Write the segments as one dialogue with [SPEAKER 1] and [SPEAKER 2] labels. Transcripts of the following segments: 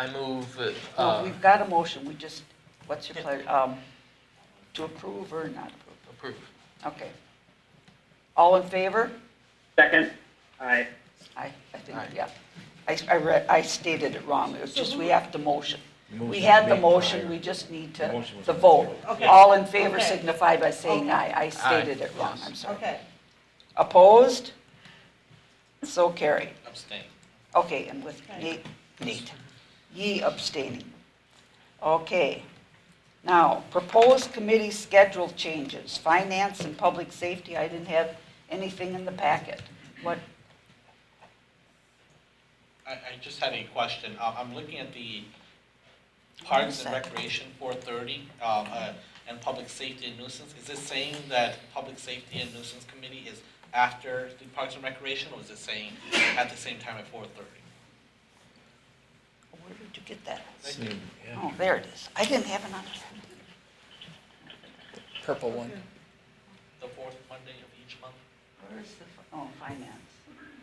[SPEAKER 1] I move,
[SPEAKER 2] Well,
[SPEAKER 1] uh,
[SPEAKER 2] Oh, we've got a motion, we just, what's your pleasure, um, to approve or not approve?
[SPEAKER 1] approve.
[SPEAKER 2] Okay. All in favor?
[SPEAKER 3] Second, aye.
[SPEAKER 2] I, I think,
[SPEAKER 1] Aye.
[SPEAKER 2] yeah. I, I read, I stated it wrong, it was just, we have to motion. We
[SPEAKER 4] Motion
[SPEAKER 2] had the
[SPEAKER 4] made
[SPEAKER 2] motion,
[SPEAKER 4] prior.
[SPEAKER 2] we just need
[SPEAKER 4] The
[SPEAKER 2] to,
[SPEAKER 4] motion was
[SPEAKER 2] the
[SPEAKER 4] made.
[SPEAKER 2] vote.
[SPEAKER 5] Okay.
[SPEAKER 2] All in favor
[SPEAKER 5] Okay.
[SPEAKER 2] signify by saying aye, I stated it wrong,
[SPEAKER 1] Yes.
[SPEAKER 2] I'm sorry.
[SPEAKER 5] Okay.
[SPEAKER 2] Opposed? So carried.
[SPEAKER 1] Abstain.
[SPEAKER 2] Okay, and with Nate, Nate, ye abstaining. Okay. Now, proposed committee schedule changes, finance and public safety, I didn't have anything in the packet. What,
[SPEAKER 6] I, I just had a question. Uh, I'm looking at the Parks and
[SPEAKER 2] One sec.
[SPEAKER 6] Recreation 430 um, uh, and Public Safety and Nuisance. Is it saying that Public Safety and Nuisance Committee is after the Parks and Recreation, or is it saying at the same time at 430?
[SPEAKER 2] where did you get that?
[SPEAKER 4] Same, yeah.
[SPEAKER 2] Oh, there it is. I didn't have another.
[SPEAKER 7] purple one.
[SPEAKER 6] The fourth Monday of each month?
[SPEAKER 2] Where's the, oh, finance.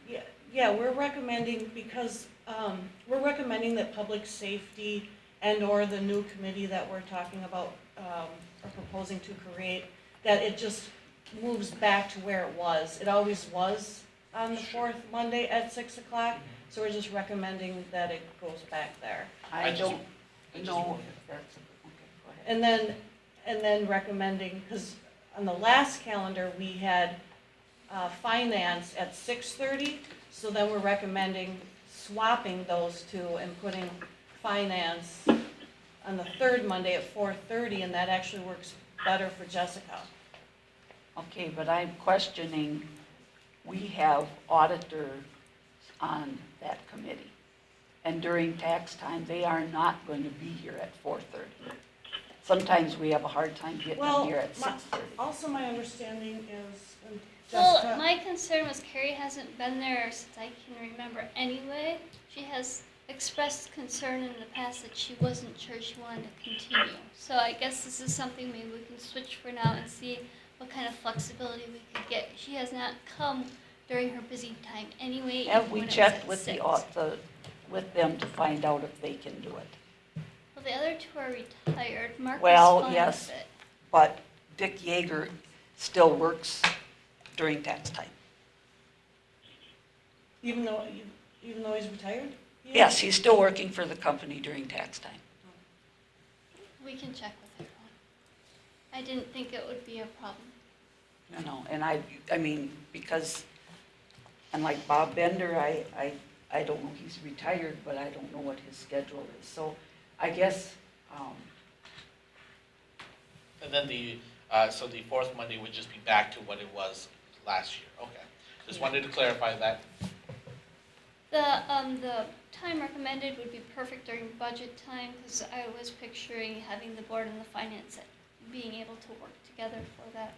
[SPEAKER 5] Yeah, yeah, we're recommending, because, um, we're recommending that public safety and/or the new committee that we're talking about, um, or proposing to create, that it just moves back to where it was. It always was on the fourth Monday at six o'clock, so we're just recommending that it goes back there.
[SPEAKER 2] I
[SPEAKER 6] I just-
[SPEAKER 2] don't
[SPEAKER 6] I just
[SPEAKER 2] know
[SPEAKER 6] wanted-
[SPEAKER 2] if that's, okay, go ahead.
[SPEAKER 5] And then, and then recommending, because on the last calendar, we had uh, finance at six thirty, so then we're recommending swapping those two and putting finance on the third Monday at four thirty, and that actually works better for Jessica.
[SPEAKER 2] Okay, but I'm questioning, we have auditors on that committee. And during tax time, they are not going to be here at four thirty. Sometimes we have a hard time getting
[SPEAKER 5] Well,
[SPEAKER 2] them here at
[SPEAKER 5] my-
[SPEAKER 2] six thirty.
[SPEAKER 5] Also, my understanding is, and
[SPEAKER 8] Well,
[SPEAKER 5] Jessica,
[SPEAKER 8] my concern was Carrie hasn't been there since I can remember anyway. She has expressed concern in the past that she wasn't sure she wanted to continue. So I guess this is something maybe we can switch for now and see what kind of flexibility we could get. She has not come during her busy time anyway. even
[SPEAKER 2] Have we
[SPEAKER 8] when it was
[SPEAKER 2] checked
[SPEAKER 8] at
[SPEAKER 2] with the,
[SPEAKER 8] six.
[SPEAKER 2] au- the, with them to find out if they can do it?
[SPEAKER 8] Well, the other two are retired. Mark
[SPEAKER 2] Well,
[SPEAKER 8] was fine
[SPEAKER 2] yes.
[SPEAKER 8] with it.
[SPEAKER 2] But Dick Yeager still works during tax time.
[SPEAKER 5] even though, even though he's retired? he is?
[SPEAKER 2] Yes, he's still working for the company during tax time.
[SPEAKER 8] We can check with her. I didn't think it would be a problem.
[SPEAKER 2] You know, and I, I mean, because, and like Bob Bender, I, I, I don't know, he's retired, but I don't know what his schedule is. So I guess, um,
[SPEAKER 6] And then the, uh, so the fourth Monday would just be back to what it was last year. Okay. Just wanted to clarify that.
[SPEAKER 8] The, um, the time recommended would be perfect during budget time, because I was picturing having the board and the finance at- being able to work together for that,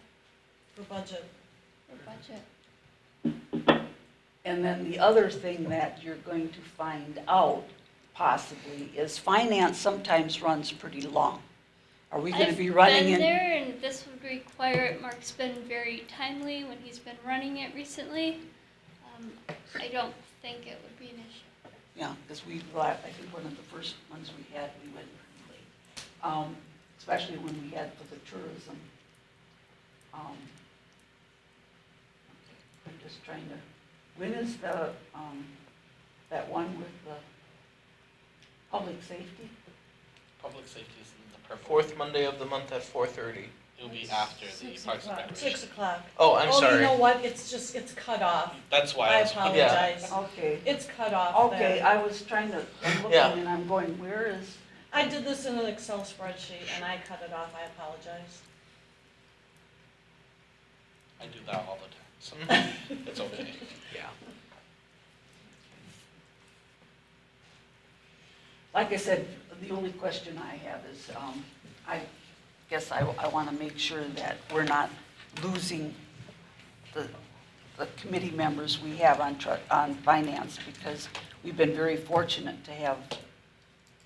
[SPEAKER 5] For budget.
[SPEAKER 8] for budget.
[SPEAKER 2] and then the other thing that you're going to find out possibly is finance sometimes runs pretty long. Are we gonna be running
[SPEAKER 8] I've been
[SPEAKER 2] in?
[SPEAKER 8] there, and this would require it, Mark's been very timely when he's been running it recently. Um, I don't think it would be an issue.
[SPEAKER 2] Yeah, cause we, I think one of the first ones we had, we went pretty late. Um, especially when we had for the tourism. Um, I'm just trying to, when is the, um, that one with the public safety?
[SPEAKER 6] Public safety is in the purple.
[SPEAKER 1] Fourth Monday of the month at 4:30.
[SPEAKER 6] It will be after the
[SPEAKER 5] Six
[SPEAKER 6] Parks and
[SPEAKER 5] o'clock.
[SPEAKER 6] Recreation.
[SPEAKER 5] Six o'clock.
[SPEAKER 1] Oh, I'm
[SPEAKER 5] Oh, you
[SPEAKER 1] sorry.
[SPEAKER 5] know what, it's just, it's cut off.
[SPEAKER 6] That's why
[SPEAKER 5] I
[SPEAKER 6] I was.
[SPEAKER 5] apologize.
[SPEAKER 2] Okay,
[SPEAKER 5] It's cut off
[SPEAKER 2] okay,
[SPEAKER 5] there.
[SPEAKER 2] I was trying to, I'm looking
[SPEAKER 1] Yeah.
[SPEAKER 2] and I'm going, where is,
[SPEAKER 5] I did this in an Excel spreadsheet and I cut it off, I apologize.
[SPEAKER 6] I do that all the time, so it's okay.
[SPEAKER 2] like I said, the only question I have is, um, I guess I, I wanna make sure that we're not losing the, the committee members we have on tru, on finance, because we've been very fortunate to have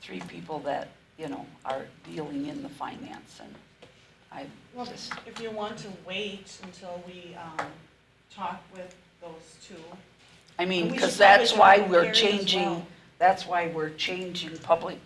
[SPEAKER 2] three people that, you know, are dealing in the finance, and I
[SPEAKER 5] Well,
[SPEAKER 2] just,
[SPEAKER 5] if you want to wait until we, um, talk with those two.
[SPEAKER 2] I mean,
[SPEAKER 5] we
[SPEAKER 2] because
[SPEAKER 5] should probably
[SPEAKER 2] that's why
[SPEAKER 5] talk with
[SPEAKER 2] we're
[SPEAKER 5] Gary as
[SPEAKER 2] changing
[SPEAKER 5] well.
[SPEAKER 2] That's why we're changing public